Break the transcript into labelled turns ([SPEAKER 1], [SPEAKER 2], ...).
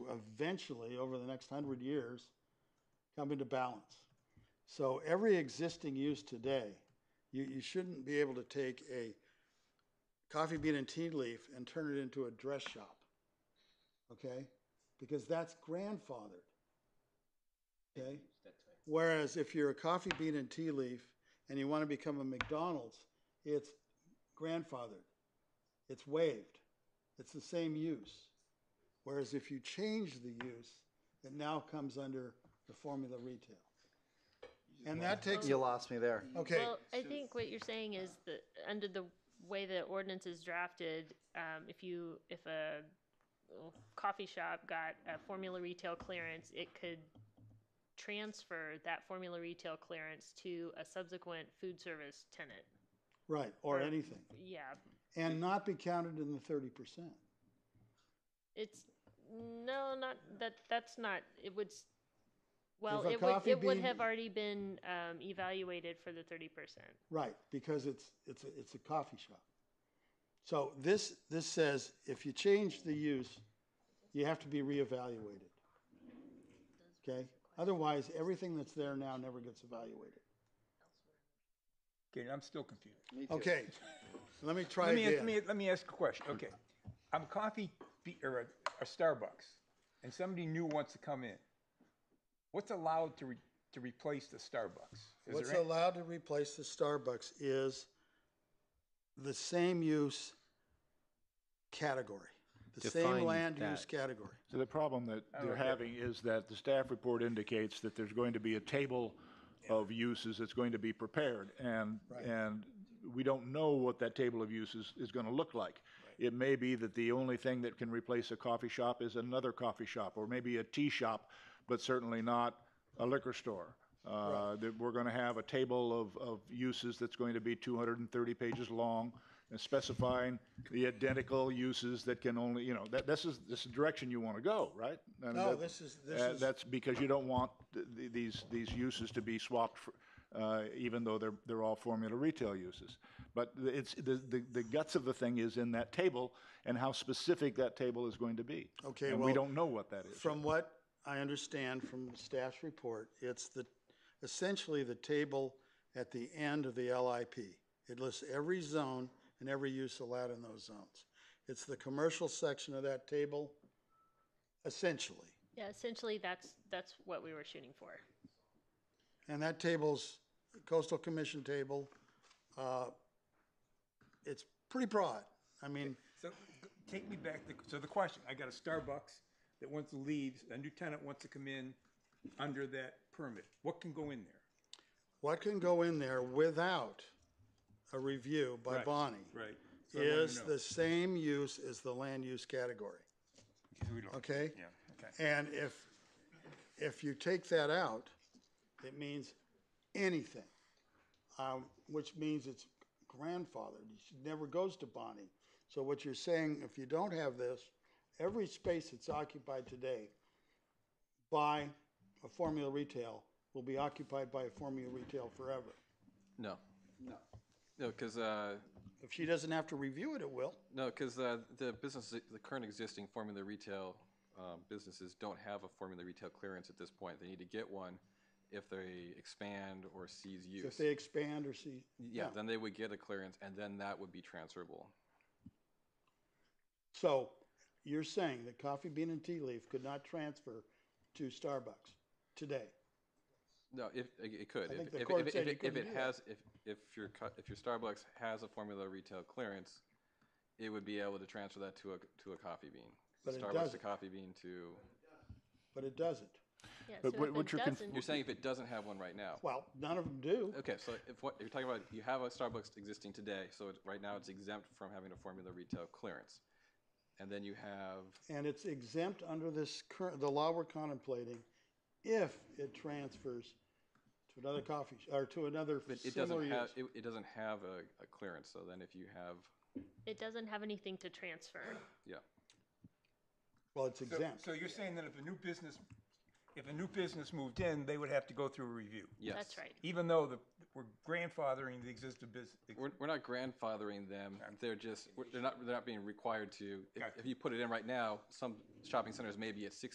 [SPEAKER 1] eventually, over the next hundred years, come into balance. So every existing use today, you, you shouldn't be able to take a coffee bean and tea leaf and turn it into a dress shop. Okay? Because that's grandfathered. Okay? Whereas if you're a coffee bean and tea leaf and you want to become a McDonald's, it's grandfathered. It's waived. It's the same use. Whereas if you change the use, it now comes under the formula retail. And that takes,
[SPEAKER 2] You lost me there.
[SPEAKER 1] okay,
[SPEAKER 3] Well, I think what you're saying is that under the way the ordinance is drafted, um, if you, if a well, coffee shop got a formula retail clearance, it could transfer that formula retail clearance to a subsequent food service tenant.
[SPEAKER 1] right, or anything.
[SPEAKER 3] Yeah,
[SPEAKER 1] And not be counted in the thirty percent.
[SPEAKER 3] it's, no, not, that, that's not, it would, s- well,
[SPEAKER 1] If a
[SPEAKER 3] it would,
[SPEAKER 1] coffee
[SPEAKER 3] it would
[SPEAKER 1] bean-
[SPEAKER 3] have already been, um, evaluated for the thirty percent.
[SPEAKER 1] Right, because it's, it's, a- it's a coffee shop. So this, this says if you change the use, you have to be reevaluated. Okay? Otherwise, everything that's there now never gets evaluated.
[SPEAKER 4] Okay, I'm still confused.
[SPEAKER 1] Okay, let me try
[SPEAKER 4] Let me, ask- let
[SPEAKER 1] again.
[SPEAKER 4] me, let me ask a question, okay. I'm a coffee, be- or a, a Starbucks, and somebody new wants to come in. What's allowed to, re, to replace the Starbucks? Is
[SPEAKER 1] What's
[SPEAKER 4] there any-
[SPEAKER 1] allowed to replace the Starbucks is the same use category, the same
[SPEAKER 2] Define
[SPEAKER 1] land
[SPEAKER 2] that.
[SPEAKER 1] use category.
[SPEAKER 5] So the problem that they're having is that the staff report indicates that there's going to be a table of uses that's going to be prepared, and, and we don't know what that table of uses is gonna look like. It may be that the only thing that can replace a coffee shop is another coffee shop, or maybe a tea shop, but certainly not a liquor store. Uh, That we're gonna have a table of, of uses that's going to be two hundred and thirty pages long, and specifying the identical uses that can only, you know, that, this is, this is the direction you want to go, right? I mean,
[SPEAKER 1] No, Oh,
[SPEAKER 5] that-
[SPEAKER 1] this is- this
[SPEAKER 5] uh,
[SPEAKER 1] is-
[SPEAKER 5] That's because you don't want th- th- these, these uses to be swapped, for- uh, even though they're, they're all formula retail uses. But the- it's, the, the- the guts of the thing is in that table and how specific that table is going to be.
[SPEAKER 1] Okay,
[SPEAKER 5] And
[SPEAKER 1] well,
[SPEAKER 5] we don't know what that is.
[SPEAKER 1] From what I understand from the staff's report, it's the, essentially the table at the end of the LIP. It lists every zone and every use allowed in those zones. It's the commercial section of that table, essentially.
[SPEAKER 3] Yeah, essentially, that's, that's what we were shooting for.
[SPEAKER 1] And that table's coastal commission table, uh, it's pretty broad. I mean,
[SPEAKER 4] So, g- take me back, to- so the question, I got a Starbucks that wants to leave, a new tenant wants to come in under that permit. What can go in there?
[SPEAKER 1] what can go in there without a review by
[SPEAKER 4] Right,
[SPEAKER 1] Bonnie?
[SPEAKER 4] Right. So I wanna
[SPEAKER 1] Is
[SPEAKER 4] know.
[SPEAKER 1] the same use as the land use category,
[SPEAKER 4] So we don't-
[SPEAKER 1] okay?
[SPEAKER 4] Yeah, okay.
[SPEAKER 1] And if, if you take that out, it means anything, um, which means it's grandfathered. It never goes to Bonnie. So what you're saying, if you don't have this, every space that's occupied today by a formula retail will be occupied by a formula retail forever.
[SPEAKER 6] No. No. No, because uh,
[SPEAKER 1] If she doesn't have to review it, it will.
[SPEAKER 6] no, 'cause, uh, the business, the current existing formula retail um, businesses don't have a formula retail clearance at this point. They need to get one if they expand or seize use.
[SPEAKER 1] If they expand or see,
[SPEAKER 6] yeah, then they would get a clearance, and then that would be transferable.
[SPEAKER 1] So you're saying that coffee bean and tea leaf could not transfer to Starbucks today?
[SPEAKER 6] No, if it, it could,
[SPEAKER 1] I
[SPEAKER 6] if,
[SPEAKER 1] think the
[SPEAKER 6] if,
[SPEAKER 1] court
[SPEAKER 6] if, if,
[SPEAKER 1] said you
[SPEAKER 6] it, if
[SPEAKER 1] couldn't
[SPEAKER 6] it
[SPEAKER 1] do that.
[SPEAKER 6] has, if if your cu- if your Starbucks has a formula retail clearance, it would be able to transfer that to a to a coffee bean.
[SPEAKER 1] But it
[SPEAKER 6] Starbucks to
[SPEAKER 1] doesn't.
[SPEAKER 6] coffee bean to.
[SPEAKER 1] But it doesn't.
[SPEAKER 3] Yeah,
[SPEAKER 5] But
[SPEAKER 3] so
[SPEAKER 5] what-
[SPEAKER 3] if
[SPEAKER 5] what
[SPEAKER 3] it
[SPEAKER 5] you're conf-
[SPEAKER 3] doesn't-
[SPEAKER 6] You're saying if it doesn't have one right now.
[SPEAKER 1] Well, none of them do.
[SPEAKER 6] Okay, so if what you're talking about, you have a Starbucks existing today, so it, right now it's exempt from having a formula retail clearance, and then you have
[SPEAKER 1] And it's exempt under this current, the law we're contemplating if it transfers to another coffee, sh- or to another
[SPEAKER 6] but it
[SPEAKER 1] similar
[SPEAKER 6] doesn't have
[SPEAKER 1] use.
[SPEAKER 6] it, it doesn't have a, a clearance. So then if you have
[SPEAKER 3] It doesn't have anything to transfer.
[SPEAKER 6] yeah,
[SPEAKER 1] Well, it's
[SPEAKER 4] So-
[SPEAKER 1] exempt.
[SPEAKER 4] So you're saying that if a new business, if a new business moved in, they would have to go through a review?
[SPEAKER 6] yes,
[SPEAKER 3] That's right.
[SPEAKER 4] Even though the, we're grandfathering the existing business.
[SPEAKER 6] We're, we're not grandfathering them. They're just we're, they're not they're not being required to. If, if you put it in right now, some shopping centers may be at six